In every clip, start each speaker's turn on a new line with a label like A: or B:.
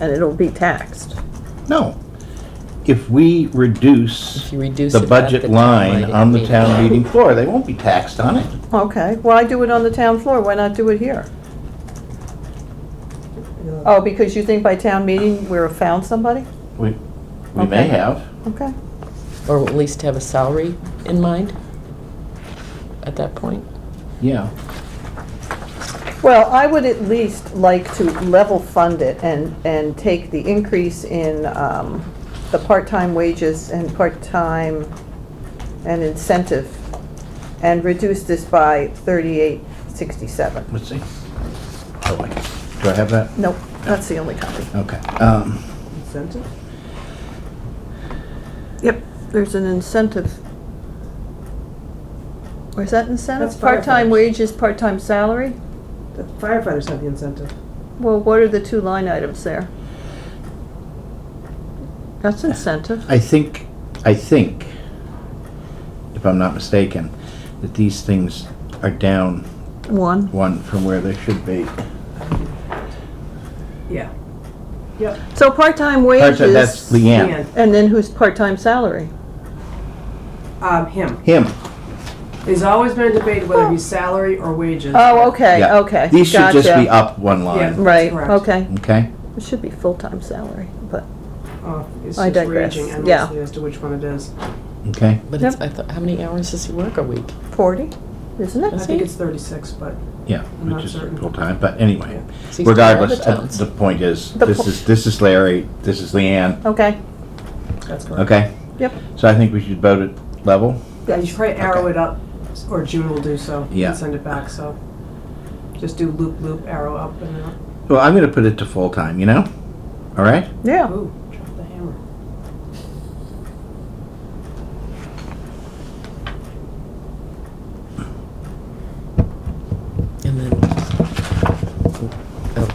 A: and it'll be taxed.
B: No. If we reduce
C: If you reduce
B: the
C: it at the
B: budget
C: town
B: line
C: meeting.
B: on the town meeting floor, they won't be taxed on it.
A: Okay, why do it on the town floor? Why not do it here? Oh, because you think by town meeting we're found somebody?
B: We, we may
A: Okay.
B: have.
A: Okay.
C: Or at least have a salary in mind at that point.
B: Yeah.
A: Well, I would at least like to level fund it and, and take the increase in um, the part-time wages and part-time and incentive and reduce this by thirty-eight sixty-seven.
B: Let's see. Oh, wait. Do I have that?
A: Nope, that's the only copy.
B: Okay. Um,
D: Incentive?
A: Yep, there's an incentive. Where's that incentive?
D: That's
A: Part-time
D: firefighters.
A: wages, part-time salary?
D: The firefighters have the incentive.
A: Well, what are the two line items there? That's incentive.
B: I think, I think, if I'm not mistaken, that these things are down
A: One.
B: one from where they should be.
D: Yeah. Yep.
A: So part-time
B: Part-
A: wages,
B: That's Leanne.
A: and then who's part-time salary?
D: Um, him.
B: Him.
D: There's always been a debate whether it be salary or wages.
A: Oh, okay,
B: Yeah.
A: okay,
B: These should just be
A: gotcha.
B: up one line,
D: Yeah.
A: Right,
D: Correct.
A: okay.
B: okay?
A: It should be full-time salary, but,
D: Oh, It's
A: I
D: just raging
A: digress. Yeah.
D: endlessly as to which one it is.
B: Okay?
C: But it's, I thought, how many hours does he work a week?
A: forty, isn't
D: I
A: it?
D: think it's thirty-six, but
B: Yeah,
D: I'm not
B: which is
D: certain.
B: full-time, but anyway.
C: He's doing other
B: Regardless, uh,
C: towns.
B: the point is,
A: The
B: this
A: po-
B: is, this is Larry, this is Leanne,
A: Okay,
D: that's correct.
B: okay?
A: yep.
B: So I think we should vote it level.
D: Yeah, you should probably arrow
B: Okay.
D: it up, or June will do so.
B: Yeah.
D: And send it back, so. Just do loop, loop, arrow up and out.
B: Well, I'm gonna put it to full-time, you know? All right?
A: Yeah,
D: Ooh, drop the hammer.
C: And then, oh,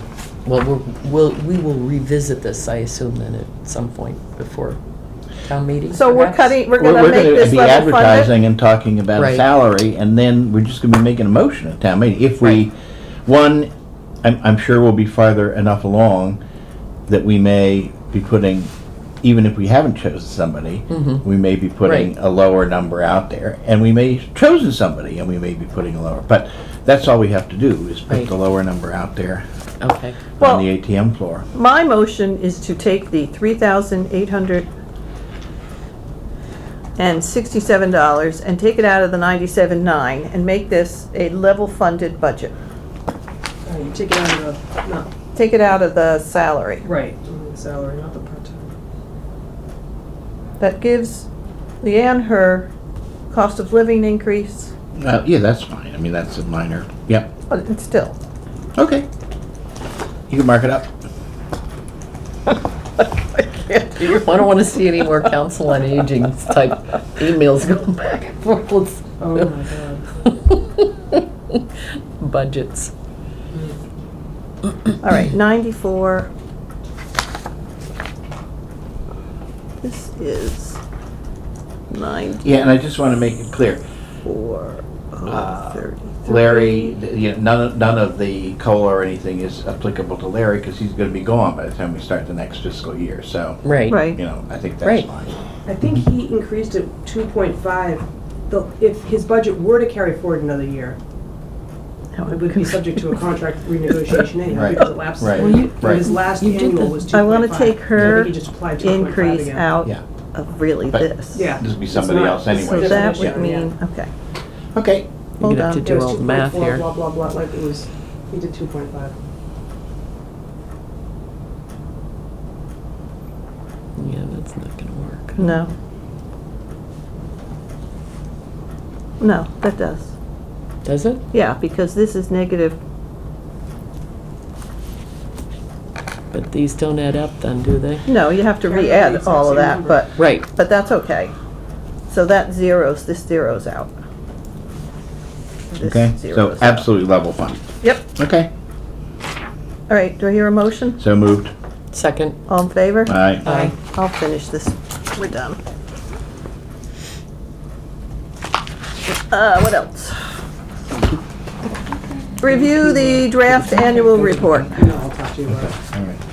C: well, we're- we'll, we will revisit this, I assume, then at some point before town meeting.
A: so we're
C: perhaps?
A: cutting, we're
B: We're
A: gonna
B: we're
A: make this
B: gonna be
A: level funded?
B: advertising and talking about a
C: Right.
B: salary, and then we're just gonna be making a motion at town meeting. If we,
C: Right.
B: one, I'm, I'm sure we'll be farther enough along that we may be putting, even if we haven't chosen somebody,
A: Mm-hmm.
C: Mhm.
B: we may be putting
C: Right.
B: a lower number out there, and we may have chosen somebody, and we may be putting a lower, but that's all we have to do, is put
C: Right.
B: the lower number out there
C: Okay,
A: Well-
B: on the ATM floor.
A: My motion is to take the three thousand eight hundred and sixty-seven dollars and take it out of the ninety-seven nine and make this a level funded budget.
D: Uh, You take it out of the, not,
A: Take it out of the salary.
D: right, the salary, not the part-time.
A: That gives Leanne her cost of living increase,
B: Uh, yeah, that's fine, I mean, that's a minor, yep,
A: but it's still.
B: okay. You can mark it up.
C: I don't want to see any more council on aging type emails going back and forth. Let's-
D: Oh, my God.
C: Budgets.
A: All right, ninety-four. This is
B: Yeah, and I just want to make it clear,
A: ninety-four
B: Uh,
A: oh thirty-three.
B: Larry, th- you know, none, of- none of the COLA or anything is applicable to Larry because he's going to be gone by the time we start the next fiscal year, so,
C: Right.
A: Right.
B: you know, I think that's
C: Right.
B: fine.
D: I think he increased it two point five. If his budget were to carry forward another year,
A: Now
D: it
A: I'm
D: would be subject to a contract renegotiation anyhow
B: Right,
D: because it lapses.
B: right,
D: And
B: right.
D: His last
C: You did
D: annual
C: the-
D: was two
A: I
D: point five.
A: wanna take her Increase out
B: Yeah.
A: of really
B: But-
A: this.
D: Yeah.
B: This would be
D: It's
B: somebody
D: not-
B: else
D: it's
B: anyway.
A: So
D: not
A: that
D: an
A: would
D: issue,
A: mean,
D: yeah.
A: okay,
B: Okay,
C: You're
A: hold
C: gonna have
A: on.
C: to
D: It
C: do
D: was
C: all the math
D: 2.4,
C: here.
D: Blah, blah, blah, like it was, he did two point five.
C: Yeah, that's not gonna work.
A: No. No, that does.
C: Does it?
A: Yeah, because this is negative,
C: But these don't add up then, do they?
A: no, you have to
D: They're not the
A: re-add
D: exact
A: all of
D: same
A: that,
D: number.
A: but,
C: Right.
A: but that's okay. So that zeros, this zeros out. This
B: okay, so
A: zeros out.
B: absolutely level fund.
A: Yep,
B: Okay,
A: all right, do I hear a motion?
B: so moved,
C: Second.
A: All in favor?
B: all right.
C: Aye.
A: I'll finish this, we're done. Uh, what else? Review the draft annual report.
D: I know, I'll talk to you about it.
B: All right.